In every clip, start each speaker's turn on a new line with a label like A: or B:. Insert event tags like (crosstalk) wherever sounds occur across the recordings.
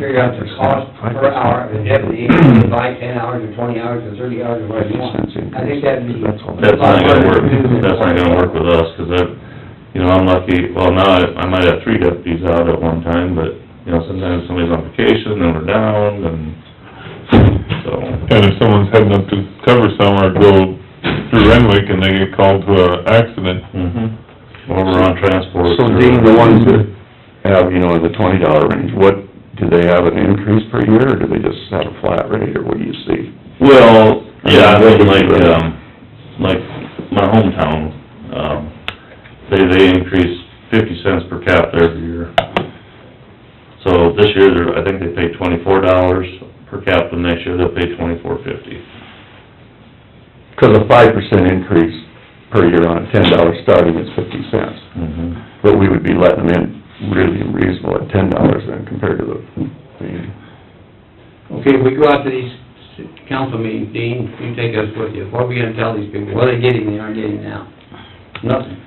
A: figure out the cost per hour of deputy, if you buy ten hours or twenty hours or thirty hours or whatever you want. I think that'd be.
B: That's not gonna work, that's not gonna work with us, 'cause I've, you know, I'm lucky, well, now I- I might have three deputies out at one time, but, you know, sometimes somebody's on vacation, then we're down, and, so,
C: And if someone's heading up to cover somewhere, go through Renwick and they get called to a accident,
B: mhm. Or we're on transport.
D: So
B: or-
D: Dean, Hmm. the ones that have, you know, in the twenty dollar range, what, do they have an increase per year, or do they just have a flat rate, or what do you see?
B: Well, yeah, I mean, like, um, like my hometown, um, they, they increase fifty cents per capita every year. So this year, they're, I think they pay twenty-four dollars per capita, next year they'll pay twenty-four fifty.
D: Because a five percent increase per year on a ten dollar starting is fifty cents, but we would be letting them in really reasonable at ten dollars then compared to the, the
A: Okay, we go out to these council meetings, Dean, you take us with you, what are we gonna tell these people, what are they getting they aren't getting now? Nothing,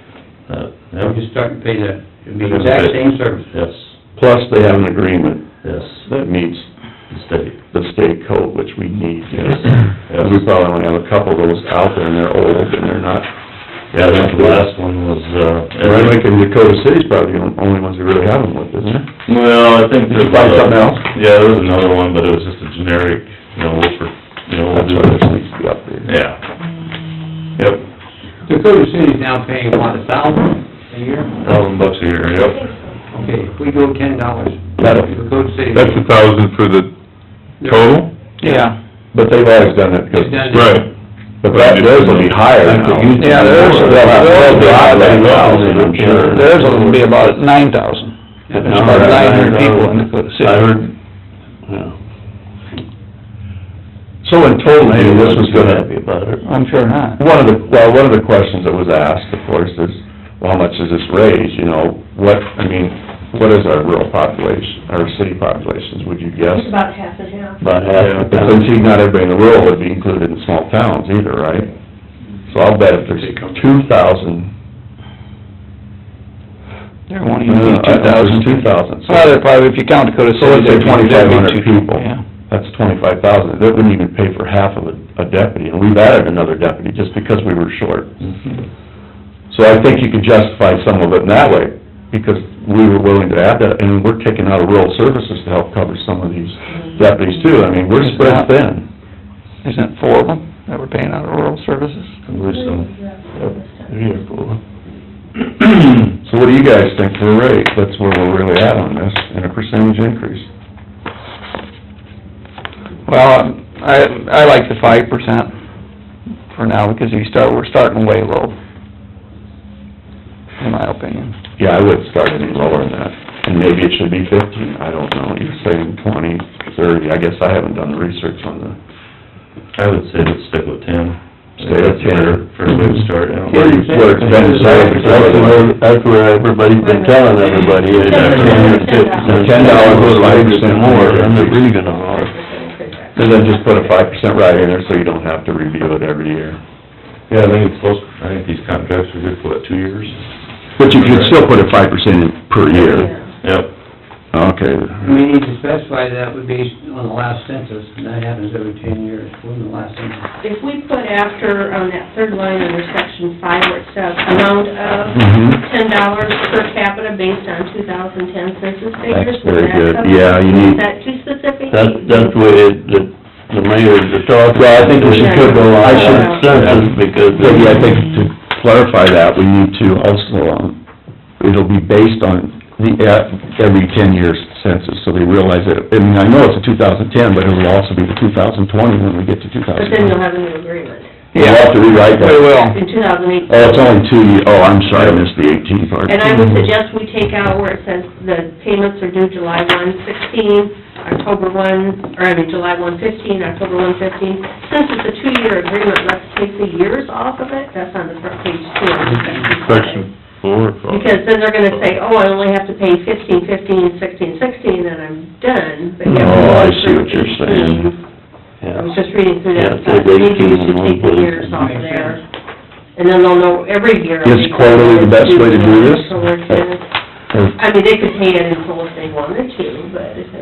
B: That,
A: we're
B: that,
A: just starting to pay the, it'd be the exact same service.
B: yes,
D: Plus, they have an agreement
B: yes,
D: that meets
B: the state,
D: the state code, which we need,
B: yes,
D: yes. And we
B: yes.
D: probably only have a couple of those out there, and they're old, and they're not,
B: Yeah, I think the last one was, uh.
D: Renwick and Dakota City's probably the only ones that really have them with, isn't it?
B: Well, I think
D: Did you
B: there's.
D: find
B: a-
D: something else?
B: Yeah, there was another one, but it was just a generic, you know, we'll, for- you know, we'll
D: That's
B: do
D: why
B: this.
D: this needs to be updated.
B: Yeah. Yep,
A: Dakota City's now paying, what, a thousand a year?
B: thousand bucks a year, yep.
A: Okay, if we go ten dollars,
D: That'll-
A: Dakota City.
C: that's a thousand for the
A: they're-
C: total?
E: Yeah,
D: But they've always done it,
A: They've
D: because,
A: done it.
C: Right.
D: but that, theirs will be higher
C: That's
D: now.
C: what you-
E: Yeah, theirs-
D: They'll have- they'll be higher than ours, I'm sure.
E: theirs will be about nine thousand.
A: Yeah.
D: It's about
E: About
D: $900.
E: nine hundred people in Dakota City.
D: I heard. So in total, maybe this was gonna,
B: Happy about it.
E: I'm sure not.
D: One of the, well, one of the questions that was asked, of course, is, well, how much does this raise, you know? What, I mean, what is our rural population, our city populations, would you guess?
F: It's about half and half.
D: About half. But since you- not everybody in the rural would be included in small towns either, right? So I'll bet if there's two thousand,
E: There won't even
D: two
E: be two
D: thousand, two thousand.
E: thousand. Well, there probably, if you count Dakota City.
D: So let's say
E: there'd be- there'd
D: 2,500
E: be two-
D: people.
E: Yeah.
D: That's twenty-five thousand, that wouldn't even pay for half of a, a deputy, and we've added another deputy just because we were short.
E: Mm-hmm.
D: So I think you could justify some of it in that way, because we were willing to add that, and we're taking out of rural services to help cover some of these deputies too, I mean, we're spread thin.
E: Isn't it four of them that we're paying out of rural services?
B: I believe so.
D: (clears throat) So what do you guys think for a rate, that's where we're really at on this, and a percentage increase?
E: Well, I, I like the five percent for now, because you start, we're starting way low, in my opinion.
D: Yeah, I would start any lower than that, and maybe it should be fifteen, I don't know, you're saying twenty, thirty, I guess I haven't done the research on the,
B: I would say let's stick with ten.
D: Stay with 10.
B: That's a better- First way to start, yeah.
D: where you, where it's been decided. That's where everybody's
F: been telling everybody is
D: Ten dollars goes five percent more,
B: I'm not really
D: gonna And then just put a five percent right in there, so you don't have to review it every year.
B: Yeah, I think it's close, I think these contracts are good for what, two years?
D: But you could still put a five percent in per year.
B: Yep,
D: Okay.
A: We need to specify that would be on the last census, and that happens every ten years, when the last census.
F: If we put after, on that third line under section five where it says amount of
D: Mhm.
F: ten dollars per capita based on two thousand ten census
D: That's
F: figures.
D: very
F: is that
D: good.
F: something-
D: Yeah, you need-
F: Is that too specific?
D: that's the way the, the mayor is talking. Well, I think we should put the I
F: should-
D: because. But yeah, I think to clarify that, we need to also, um, it'll be based on the, uh, every ten years census, so they realize that, I mean, I know it's a two thousand ten, but it'll also be the two thousand twenty when we get to two
F: But
D: thousand
F: then
D: twenty.
F: you'll have a new agreement.
D: We'll have to rewrite that.
E: We will.
F: In two thousand eight.
D: Oh, it's only two, ye- oh, I'm sorry, I missed the eighteen part.
F: And I would suggest we take out where it says the payments are due July one sixteen, October one, or I mean, July one fifteen, October one fifteen. Since it's a two-year agreement, let's take the years off of it, that's on the front page two. of the
C: Section four, or five.
F: Because then they're gonna say, oh, I only have to pay fifteen, fifteen, sixteen, sixteen, and I'm done. But you have to
D: Oh, I
F: go
D: see what you're
F: through
D: saying.
F: 18. I was just reading through that, so maybe we should take the years off of there. And then they'll know every year.
D: Is quarterly the best way to do this?
F: So we're gonna- I mean, they could pay it in full if they wanted to, but if